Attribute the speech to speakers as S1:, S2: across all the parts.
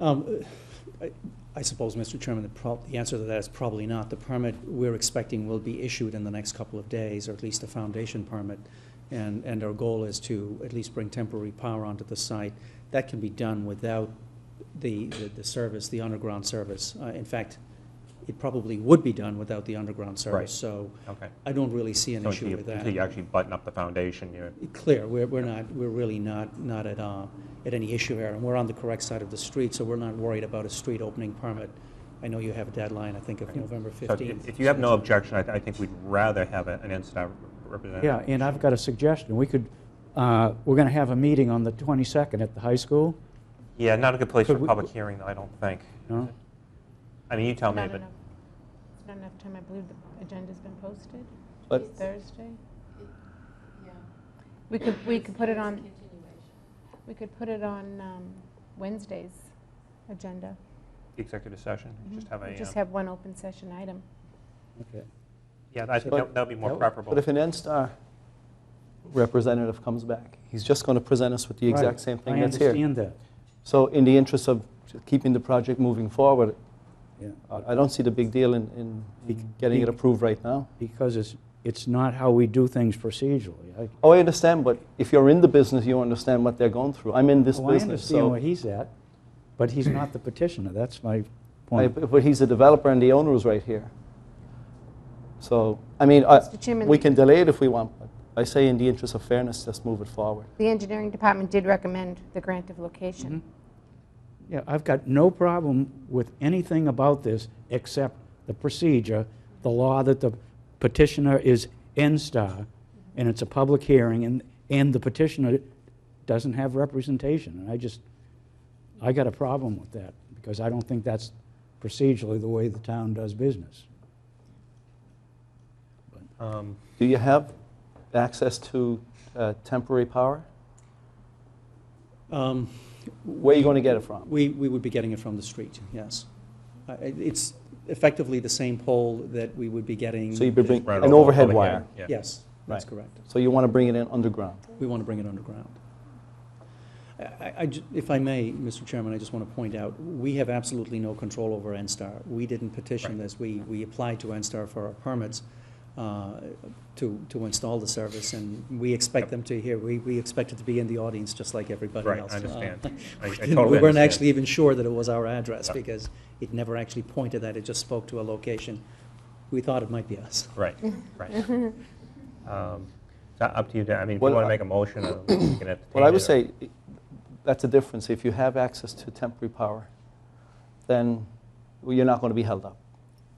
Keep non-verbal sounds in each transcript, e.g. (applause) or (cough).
S1: Um, I- I suppose, Mr. Chairman, the prob, the answer to that is probably not. The permit we're expecting will be issued in the next couple of days, or at least a foundation permit. And, and our goal is to at least bring temporary power onto the site. That can be done without the, the- the service, the underground service. Uh, In fact, it probably would be done without the underground
S2: Right.
S1: service. So
S2: Okay.
S1: I don't really see an
S2: So until
S1: issue
S2: you-
S1: with that
S2: Until you actually button up the foundation, you're,
S1: clear, we're, we're not, we're really not, not at, uh, at any issue here, and we're on the correct side of the street, so we're not worried about a street opening permit. I know you have a deadline, I think, of
S2: Right.
S1: November
S2: so
S1: fifteenth.
S2: if if you have no objection, I, th- I think we'd rather have a- an NSTAR representative.
S3: Yeah, and I've got a suggestion. We could, uh, we're going to have a meeting on the 22nd at the high school.
S2: Yeah, not a good place for
S3: Could
S2: a
S3: we-
S2: public hearing, though, I don't think.
S3: No?
S2: I mean, you tell me,
S4: Not
S2: but,
S4: enough- It's not enough time, I believe the agenda's been posted,
S3: But
S4: Thursday.
S5: Yeah.
S4: We could, we could put it
S5: It's a
S4: on,
S5: continuation.
S4: we could put it on um, Wednesday's agenda.
S2: the executive session, just have a,
S4: Mm-hmm. We Just
S2: uh,
S4: have one open session item.
S3: okay.
S2: yeah, I think
S6: But-
S2: that that would be more
S6: That-
S2: preferable.
S6: But if an N-Star representative comes back, he's just going to present us with the
S3: Right.
S6: exact same thing that's
S3: I
S6: here.
S3: understand that,
S6: So in the interest of keeping the project moving forward,
S3: yeah.
S6: I I don't see the big deal in-
S3: Mm-hmm.
S6: in getting it approved right now.
S3: Because it's, it's not how we do things procedurally. I-
S6: Oh, I understand, but if you're in the business, you understand what they're going through. I'm in this
S3: Well, Oh, I
S6: business,
S3: understand
S6: so...
S3: where he's at, but he's not the petitioner. That's my
S6: I-
S3: point.
S6: But he's a developer and the owner is right here. So, I mean, I-
S4: Mr. Chairman,
S6: we
S4: the-
S6: can delay it if we want, but I say in the interest of fairness, let's move it forward.
S4: The engineering department did recommend the grant of location.
S3: Mm-hmm. Yeah, I've got no problem with anything about this except the procedure, the law that the petitioner is N-Star, and it's a public hearing, and, and the petitioner doesn't have representation. And I just, I got a problem with that, because I don't think that's procedurally the way the town does business.
S2: Um,
S6: Do you have access to uh, temporary power?
S1: Um,
S6: Where are you going to get it from?
S1: we, we would be getting it from the street, yes. I- I- It's effectively the same pole that we would be getting.
S6: So you'd be bringing
S2: right
S6: an
S2: over-
S6: overhead
S2: over here,
S6: wire.
S2: yeah.
S1: Yes, that's
S6: Right.
S1: correct.
S6: So you want to bring it in underground.
S1: We want to bring it underground. I- I- I ju- if I may, Mr. Chairman, I just want to point out, we have absolutely no control over NSTAR. We didn't petition
S2: Right.
S1: this, we, we applied to NSTAR for our permits uh, to, to install the service, and we expect them to hear, we, we expect it to be in the audience just like everybody
S2: Right, I
S1: else. Uh,
S2: understand.
S1: (laughs)
S2: I- I
S1: we
S2: totally
S1: weren't
S2: understand.
S1: actually even sure that it was our address,
S2: Yeah.
S1: because it never actually pointed that, it just spoke to a location. We thought it might be us.
S2: Right,
S4: (laughs)
S2: right. Um, It's not up to you, Dan. I mean, if you
S6: Well,
S2: want to
S6: I-
S2: make a motion, uh, we can entertain
S6: What I
S2: it or-
S6: would say, i- that's a difference. If you have access to temporary power, then you're not going to be held up.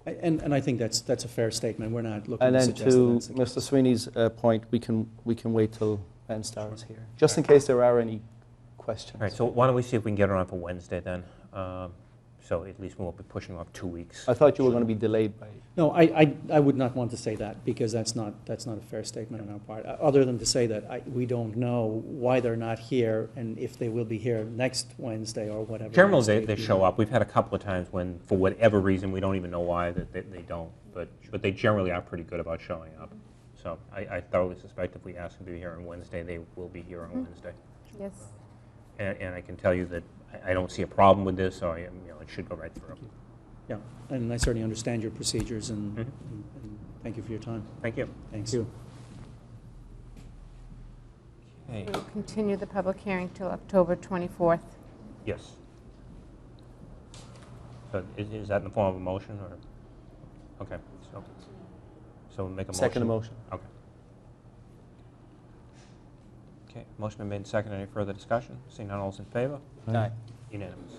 S1: I- And, and I think that's, that's a fair statement, we're not looking
S6: And
S1: to
S6: then
S1: suggest that
S6: to
S1: that's the case.
S6: Mr. Sweeney's uh, point, we can, we can wait till Ben starts here, just in
S2: All right.
S6: case there are any
S2: All right,
S6: questions.
S2: so why don't we see if we can get it on for Wednesday then? Um, So at least we won't be pushing off two weeks.
S6: I thought you were going to be delayed by,
S1: No, I, I, I would not want to say that, because that's not, that's not a fair statement on our part, o- other than to say that I, we don't know why they're not here, and if they will be here next Wednesday or whatever.
S2: Generally,
S1: next
S2: they,
S1: date
S2: they
S1: we
S2: show
S1: have.
S2: up. We've had a couple of times when, for whatever reason, we don't even know why, that they, they don't. But, but they generally are pretty good about showing up. So I, I thoroughly suspect if we ask them to be here on Wednesday, they will be here on Wednesday.
S4: Yes.
S2: And, and I can tell you that I, I don't see a problem with this, so I, you know, it should go right through.
S1: Yeah, and I certainly understand your procedures, and,
S2: Mhm.
S1: and and thank you for your time.
S2: Thank you.
S1: Thanks.
S2: Okay.
S4: We'll continue the public hearing till October 24th.
S2: Yes. So is, is that in the form of a motion or? Okay, so, so make a motion.
S6: second emotion.
S2: Okay. Okay, motion been made and seconded. Any further discussion? Seeing none, all's in favor?
S6: Aye.
S2: Unanimous.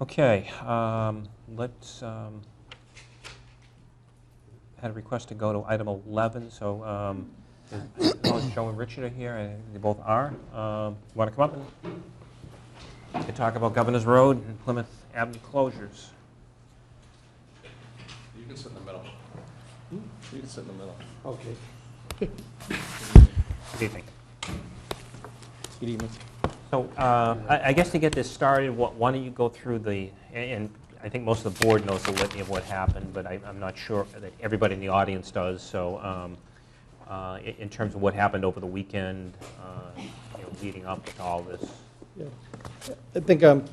S2: Okay, um, let's, um, had a request to go to item 11, so, um, is- oh, Joe and Richard are here, and they both are. Um, Want to come up and to talk about Governor's Road and Plymouth Avenue closures?
S7: You can sit in the middle. You can sit in the middle.
S2: Good evening.
S6: Good evening.
S2: So uh, I I guess to get this started, wh- why don't you go through the, and- and I think most of the board knows the litany of what happened, but I- I'm not sure that everybody in the audience does, so um, uh, i- in terms of what happened over the weekend, uh, you know, leading up to all this.
S8: I think um,